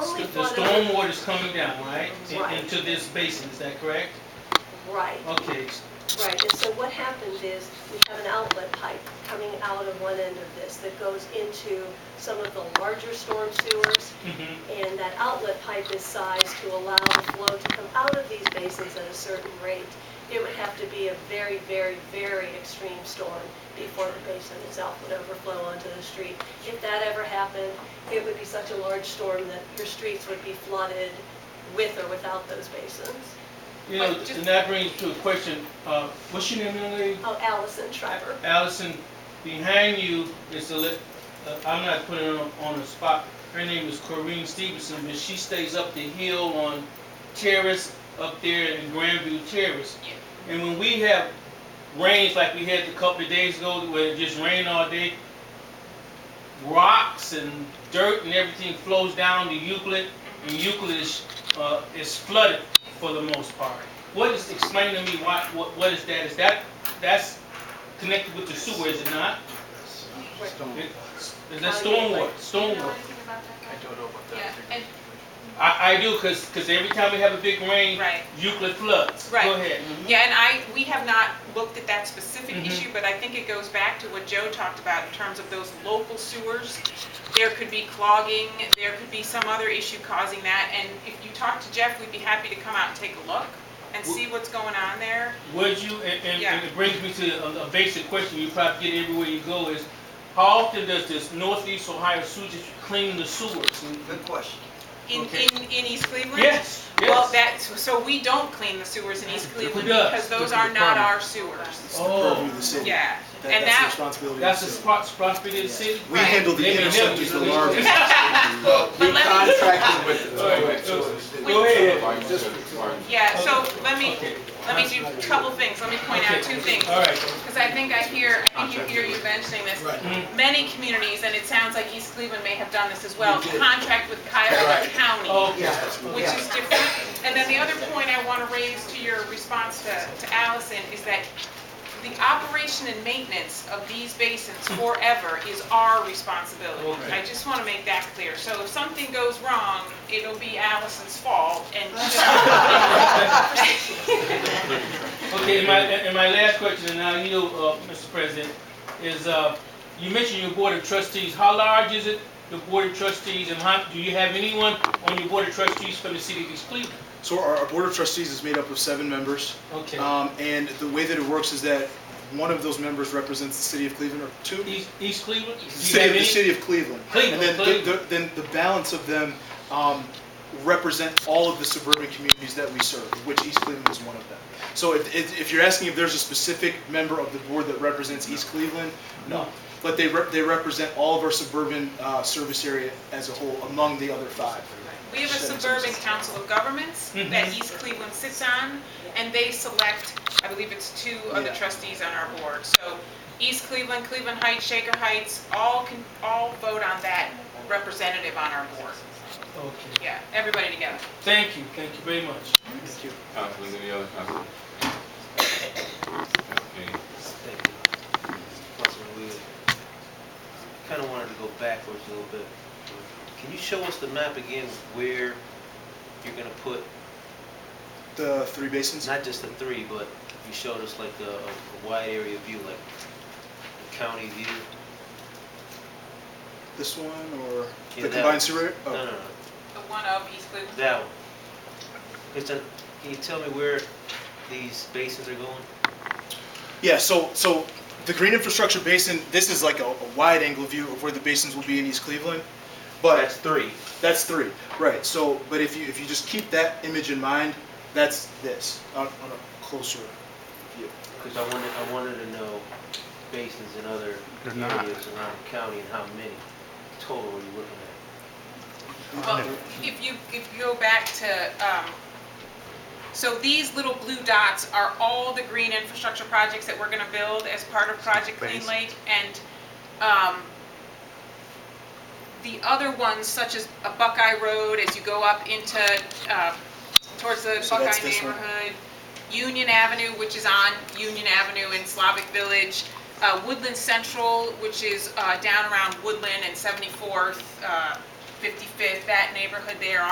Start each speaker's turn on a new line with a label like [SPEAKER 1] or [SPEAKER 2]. [SPEAKER 1] The
[SPEAKER 2] only
[SPEAKER 1] the
[SPEAKER 2] for
[SPEAKER 1] storm
[SPEAKER 2] the,
[SPEAKER 1] water is coming down, right? In-
[SPEAKER 2] Right.
[SPEAKER 1] Into this basin, is that correct?
[SPEAKER 2] right,
[SPEAKER 1] Okay,
[SPEAKER 2] right. And so what happens is, we have an outlet pipe coming out of one end of this that goes into some of the larger storm sewers.
[SPEAKER 1] mhm,
[SPEAKER 2] And that outlet pipe is sized to allow the flow to come out of these basins at a certain rate. It would have to be a very, very, very extreme storm before the basin itself would overflow onto the street. If that ever happened, it would be such a large storm that your streets would be flooded with or without those basins.
[SPEAKER 1] you know,
[SPEAKER 3] Wait, just-
[SPEAKER 1] and that brings to a question, uh, what's your name, young lady?
[SPEAKER 2] Oh, Allison Shriver.
[SPEAKER 1] Allison, behind you is a, li- uh, I'm not putting her on- on the spot, her name is Corinne Stevenson, but she stays up the hill on Terrace up there in Grandview Terrace. And when we have rains like we had a couple of days ago, where it just rained all day, rocks and dirt and everything flows down to Euclid, and Euclid is, uh, is flooded for the most part. What is, explain to me why, what, what is that? Is that, that's connected with the sewer, is it not?
[SPEAKER 4] Stone.
[SPEAKER 1] It- Is that
[SPEAKER 3] Oh,
[SPEAKER 1] stormwater, stormwater?
[SPEAKER 4] I don't know about
[SPEAKER 3] Yeah,
[SPEAKER 4] that.
[SPEAKER 3] and-
[SPEAKER 1] I, I do, cause, 'cause every time we have a big rain,
[SPEAKER 3] Right.
[SPEAKER 1] Euclid floods. Go
[SPEAKER 3] Right. Mm-hmm.
[SPEAKER 1] ahead. Mhm.
[SPEAKER 3] Yeah, and I, we have not looked at that specific
[SPEAKER 1] Mhm.
[SPEAKER 3] issue, but I think it goes back to what Joe talked about in terms of those local sewers. There could be clogging, there could be some other issue causing that, and if you talk to Jeff, we'd be happy to come out and take a look and see what's going on there.
[SPEAKER 1] Would you, and, and-
[SPEAKER 3] Yeah.
[SPEAKER 1] and it brings me to a, a basic question you probably get everywhere you go is, how often does this Northeast Ohio Sewer District clean the sewers?
[SPEAKER 4] Good question.
[SPEAKER 3] In,
[SPEAKER 1] Okay.
[SPEAKER 3] in, in East Cleveland?
[SPEAKER 1] Yes,
[SPEAKER 3] Well,
[SPEAKER 1] yes.
[SPEAKER 3] that's, so we don't clean the sewers in East Cleveland
[SPEAKER 1] does?
[SPEAKER 3] because
[SPEAKER 4] This
[SPEAKER 3] those
[SPEAKER 4] is
[SPEAKER 3] are
[SPEAKER 4] the
[SPEAKER 3] not
[SPEAKER 4] problem.
[SPEAKER 3] our sewers.
[SPEAKER 4] It's the purview of the city.
[SPEAKER 3] Yeah,
[SPEAKER 4] That-
[SPEAKER 3] and
[SPEAKER 4] That's the
[SPEAKER 3] that,
[SPEAKER 4] responsibility of
[SPEAKER 1] That's
[SPEAKER 4] the
[SPEAKER 1] a
[SPEAKER 4] city.
[SPEAKER 1] spot, property of the city?
[SPEAKER 4] We
[SPEAKER 3] Right.
[SPEAKER 4] handle the
[SPEAKER 1] They may
[SPEAKER 4] interceptors, the
[SPEAKER 1] never-
[SPEAKER 4] larvae.
[SPEAKER 3] But let me-
[SPEAKER 5] Contracted with the.
[SPEAKER 1] All right, so- Go ahead.
[SPEAKER 3] yeah, so let me,
[SPEAKER 1] Okay.
[SPEAKER 3] let me do a couple things, let me point out two things.
[SPEAKER 1] All right.
[SPEAKER 3] Because I think I hear, I think you hear you mentioning this,
[SPEAKER 1] Mhm.
[SPEAKER 3] many communities, and it sounds like East Cleveland may have done this as well,
[SPEAKER 4] We did.
[SPEAKER 3] contract with Cuyahoga
[SPEAKER 5] Right.
[SPEAKER 3] County,
[SPEAKER 1] Oh,
[SPEAKER 4] Yes.
[SPEAKER 3] which is different. And then the other point I want to raise to your response to, to Allison is that the operation and maintenance of these basins forever is our responsibility.
[SPEAKER 1] Okay.
[SPEAKER 3] I just want to make that clear. So if something goes wrong, it'll be Allison's fault and.
[SPEAKER 1] Okay, and my, and my last question, and I'll yield, uh, Mr. President, is, uh, you mentioned your board of trustees. How large is it, the board of trustees, and how, do you have anyone on your board of trustees from the city of East Cleveland?
[SPEAKER 6] So our, our board of trustees is made up of seven members,
[SPEAKER 1] Okay.
[SPEAKER 6] um, and the way that it works is that one of those members represents the city of Cleveland, or two,
[SPEAKER 1] East, East Cleveland? Do you
[SPEAKER 6] City-
[SPEAKER 1] have
[SPEAKER 6] the
[SPEAKER 1] any?
[SPEAKER 6] city of Cleveland.
[SPEAKER 1] Cleveland,
[SPEAKER 6] And then the- the,
[SPEAKER 1] Cleveland.
[SPEAKER 6] then the balance of them, um, represent all of the suburban communities that we serve, of which East Cleveland is one of them. So if, if, if you're asking if there's a specific member of the board that represents East Cleveland, no. But they rep, they represent all of our suburban, uh, service area as a whole, among the other five.
[SPEAKER 3] We have a suburban council of governments that East Cleveland sits on, and they select, I believe it's two of the
[SPEAKER 6] Yeah.
[SPEAKER 3] trustees on our board. So East Cleveland, Cleveland Heights, Shaker Heights, all can, all vote on that representative on our board.
[SPEAKER 1] Okay.
[SPEAKER 3] Yeah, everybody together.
[SPEAKER 1] Thank you, thank you very much.
[SPEAKER 6] Thank you.
[SPEAKER 5] Councilors, any other councilors? Okay,
[SPEAKER 7] Councilman Wheeler, kind of wanted to go backwards a little bit. Can you show us the map again where you're going to put,
[SPEAKER 6] The three basins?
[SPEAKER 7] not just the three, but you showed us like a a wide area view, like the county view?
[SPEAKER 6] This one or the
[SPEAKER 7] Yeah, that
[SPEAKER 6] combined
[SPEAKER 7] one.
[SPEAKER 6] sewer? oh.
[SPEAKER 7] No, no, no.
[SPEAKER 3] The one of East Cleveland.
[SPEAKER 7] That one. Because then, can you tell me where these basins are going?
[SPEAKER 6] Yeah, so, so the green infrastructure basin, this is like a, a wide angle view of where the basins will be in East Cleveland. But
[SPEAKER 7] That's three.
[SPEAKER 6] that's three, right, so, but if you, if you just keep that image in mind, that's this, on, on a closer view.
[SPEAKER 7] Because I wanted, I wanted to know basins in other areas around the county and how many total are you looking at?
[SPEAKER 3] Well, if you, if you go back to, um, so these little blue dots are all the green infrastructure projects that we're gonna build as part of Project Clean Lake, and, um, the other ones, such as a Buckeye Road, as you go up into, uh, towards the
[SPEAKER 6] So that's
[SPEAKER 3] Buckeye
[SPEAKER 6] this one.
[SPEAKER 3] neighborhood, Union Avenue, which is on Union Avenue in Slavic Village, uh, Woodland Central, which is, uh, down around Woodland and 74th, uh, 55th, that neighborhood there